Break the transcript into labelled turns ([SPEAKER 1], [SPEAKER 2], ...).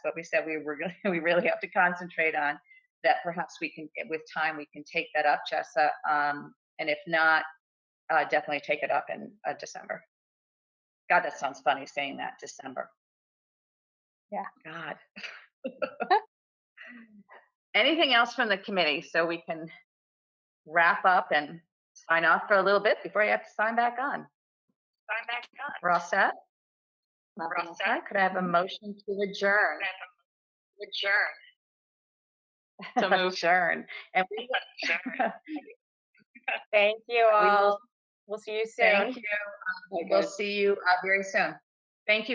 [SPEAKER 1] but we said we were going we really have to concentrate on that perhaps we can with time we can take that up jessa um, and if not uh, definitely take it up in uh, december god that sounds funny saying that december
[SPEAKER 2] Yeah.
[SPEAKER 1] god anything else from the committee so we can wrap up and sign off for a little bit before you have to sign back on
[SPEAKER 3] Sign back on.
[SPEAKER 1] we're all set
[SPEAKER 2] Nothing else.
[SPEAKER 1] Okay, could I have a motion to adjourn?
[SPEAKER 3] Adjourn.
[SPEAKER 4] So moved.
[SPEAKER 1] Adjourn. And we,
[SPEAKER 3] Adjourn.
[SPEAKER 2] Thank you
[SPEAKER 1] will-
[SPEAKER 2] all. We'll see you soon.
[SPEAKER 1] thank you.
[SPEAKER 2] Okay,
[SPEAKER 1] We'll
[SPEAKER 2] good.
[SPEAKER 1] see you uh, very soon. Thank you.